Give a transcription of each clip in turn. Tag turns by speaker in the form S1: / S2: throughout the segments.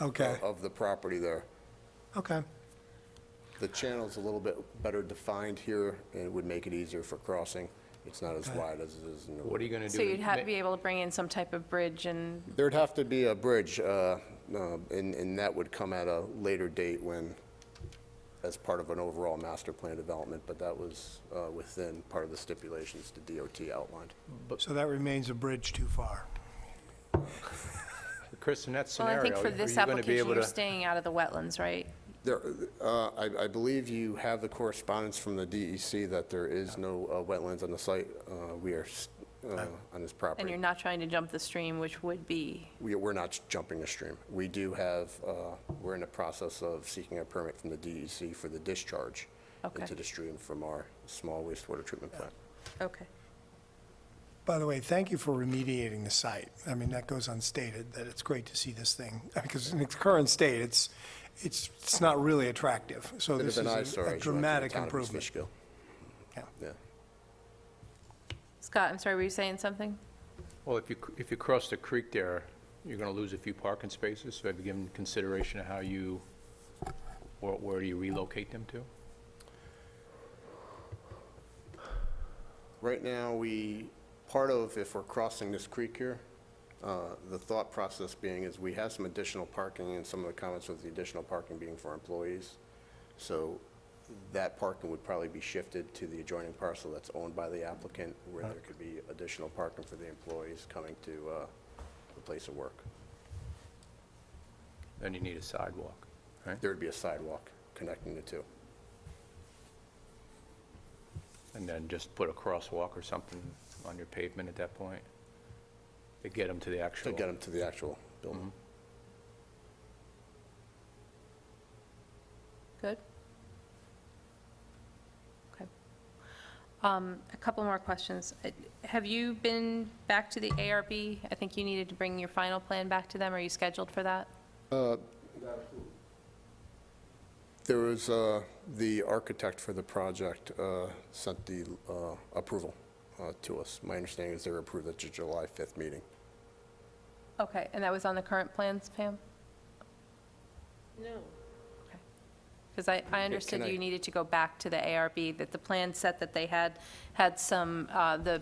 S1: Okay,
S2: of the property there. uh,
S1: okay.
S2: The channel's a little bit better defined here, and it would make it easier for crossing. It's not as wide as it is in the...
S3: What are you gonna do?
S4: So you'd have, be able to bring in some type of bridge and,
S2: There'd have to be a bridge, uh, uh, and and that would come at a later date when, as part of an overall master plan development, but that was uh, within part of the stipulations the DOT outlined.
S1: So that remains a bridge too far.
S3: Chris, in that
S4: well, I
S3: scenario,
S4: think for
S3: are you
S4: this
S3: gonna be
S4: application,
S3: able
S4: you're
S3: to?
S4: staying out of the wetlands, right?
S2: There, uh, I I believe you have the correspondence from the DEC that there is no uh, wetlands on the site. Uh, We are s- uh, on this property.
S4: And you're not trying to jump the stream, which would be,
S2: We- We're not jumping a stream. We do have, uh, we're in the process of seeking a permit from the DEC for the discharge
S4: Okay.
S2: into the stream from our small wastewater treatment plant.
S4: okay.
S1: By the way, thank you for remediating the site. I mean, that goes unstated, that it's great to see this thing, because in its current state, it's, it's, it's not really attractive. So
S2: Bit
S1: this
S2: of an
S1: is
S2: eyesore
S1: a-
S2: as
S1: a
S2: you enter the
S1: dramatic
S2: town of East
S1: improvement.
S2: Fishkill.
S1: Yeah.
S2: Yeah.
S4: Scott, I'm sorry, were you saying something?
S3: Well, if you, c- if you cross the creek there, you're gonna lose a few parking spaces, so have you given consideration of how you, or where do you relocate them to?
S2: Right now, we, part of, if we're crossing this creek here, uh, the thought process being is we have some additional parking and some of the comments with the additional parking being for employees. So that parking would probably be shifted to the adjoining parcel that's owned by the applicant where there could be additional parking for the employees coming to uh, the place of work.
S3: Then you need a sidewalk, right?
S2: There would be a sidewalk connecting the two.
S3: And then just put a crosswalk or something on your pavement at that point to get them to the
S2: To
S3: actual.
S2: get them to the actual building.
S4: Good? Okay. Um, A couple more questions. Uh, Have you been back to the ARB? I think you needed to bring your final plan back to them. Are you scheduled for that?
S2: There was, uh, the architect for the project uh, sent the uh, approval uh, to us. My understanding is they were approved at the July 5th meeting.
S4: Okay, and that was on the current plans, Pam?
S5: No.
S4: Because I, I understood
S2: can I-
S4: you needed to go back to the ARB, that the plan set that they had, had some, uh, the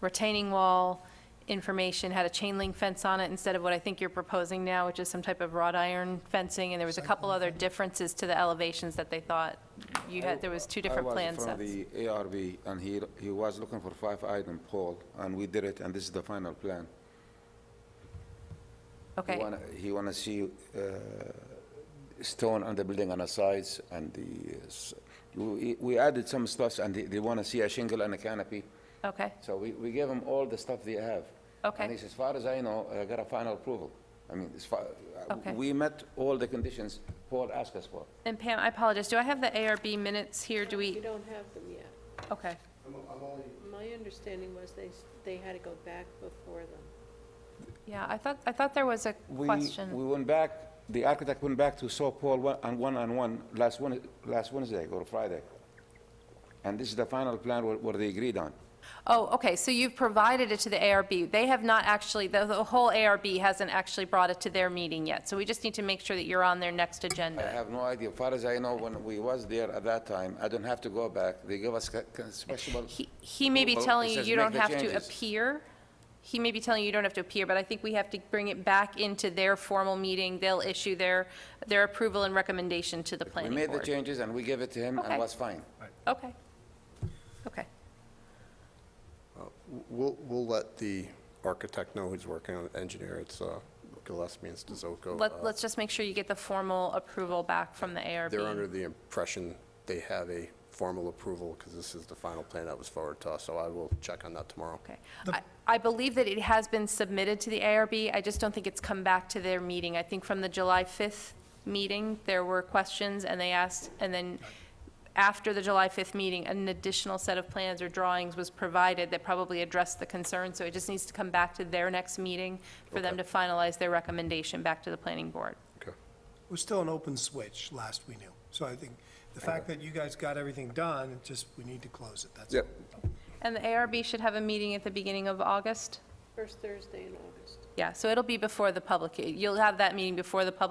S4: retaining wall information, had a chain link fence on it instead of what I think you're proposing now, which is some type of wrought iron fencing, and there was a couple other differences to the elevations that they thought you had, there was two different plan
S6: I was
S4: sets.
S6: from the ARB, and he, he was looking for five item pole, and we did it, and this is the final plan. He
S4: Okay,
S6: wanna- He want to see uh, stone on the building on the sides, and the, uh, s- we we added some stuffs, and they- they want to see a shingle and a canopy.
S4: okay,
S6: So we, we gave him all the stuff they have.
S4: Okay.
S6: And he says, as far as I know, I got a final approval. I mean, as far, uh,
S4: Okay.
S6: we met all the conditions Paul asked us for.
S4: and Pam, I apologize, do I have the ARB minutes here, do
S5: We
S4: we,
S5: don't have them yet.
S4: okay,
S5: My understanding was they, s- they had to go back before them.
S4: yeah, I thought, I thought there was a
S6: We- We
S4: question,
S6: went back, the architect went back to saw Paul one- on one-on-one last Wed- last Wednesday or Friday. And this is the final plan where- where they agreed on.
S4: oh, okay, so you've provided it to the ARB, they have not actually, the, the whole ARB hasn't actually brought it to their meeting yet, so we just need to make sure that you're on their next
S6: I
S4: agenda.
S6: have no idea, as far as I know, when we was there at that time, I don't have to go back, they gave us ca- ca- special...
S4: He, he may be
S6: Well, it
S4: telling you
S6: says
S4: you
S6: make
S4: don't
S6: the
S4: have to
S6: changes.
S4: appear, he may be telling you you don't have to appear, but I think we have to bring it back into their formal meeting, they'll issue their, their approval and recommendation to the
S6: We
S4: planning
S6: made the
S4: board.
S6: changes and we gave it to him
S4: Okay.
S6: and was fine.
S4: Okay, okay,
S2: We'll, we'll let the architect know who's working on it, engineer, it's uh, Gillespie and Stazoko. Uh,
S4: let, let's just make sure you get the formal approval back from the ARB.
S2: They're under the impression they have a formal approval because this is the final plan that was forwarded to us, so I will check on that tomorrow.
S4: Okay. I- I believe that it has been submitted to the ARB, I just don't think it's come back to their meeting. I think from the July 5th meeting, there were questions, and they asked, and then after the July 5th meeting, an additional set of plans or drawings was provided that probably addressed the concern, so it just needs to come back to their next meeting for them to
S2: Okay.
S4: finalize their recommendation back to the planning board.
S2: Okay.
S1: It was still an open switch, last we knew. So I think the fact that you guys got everything done, it just, we need to close it, that's all.
S2: Yep,
S4: And the ARB should have a meeting at the beginning of August?
S5: First Thursday in August.
S4: Yeah, so it'll be before the public, you'll have that meeting before the public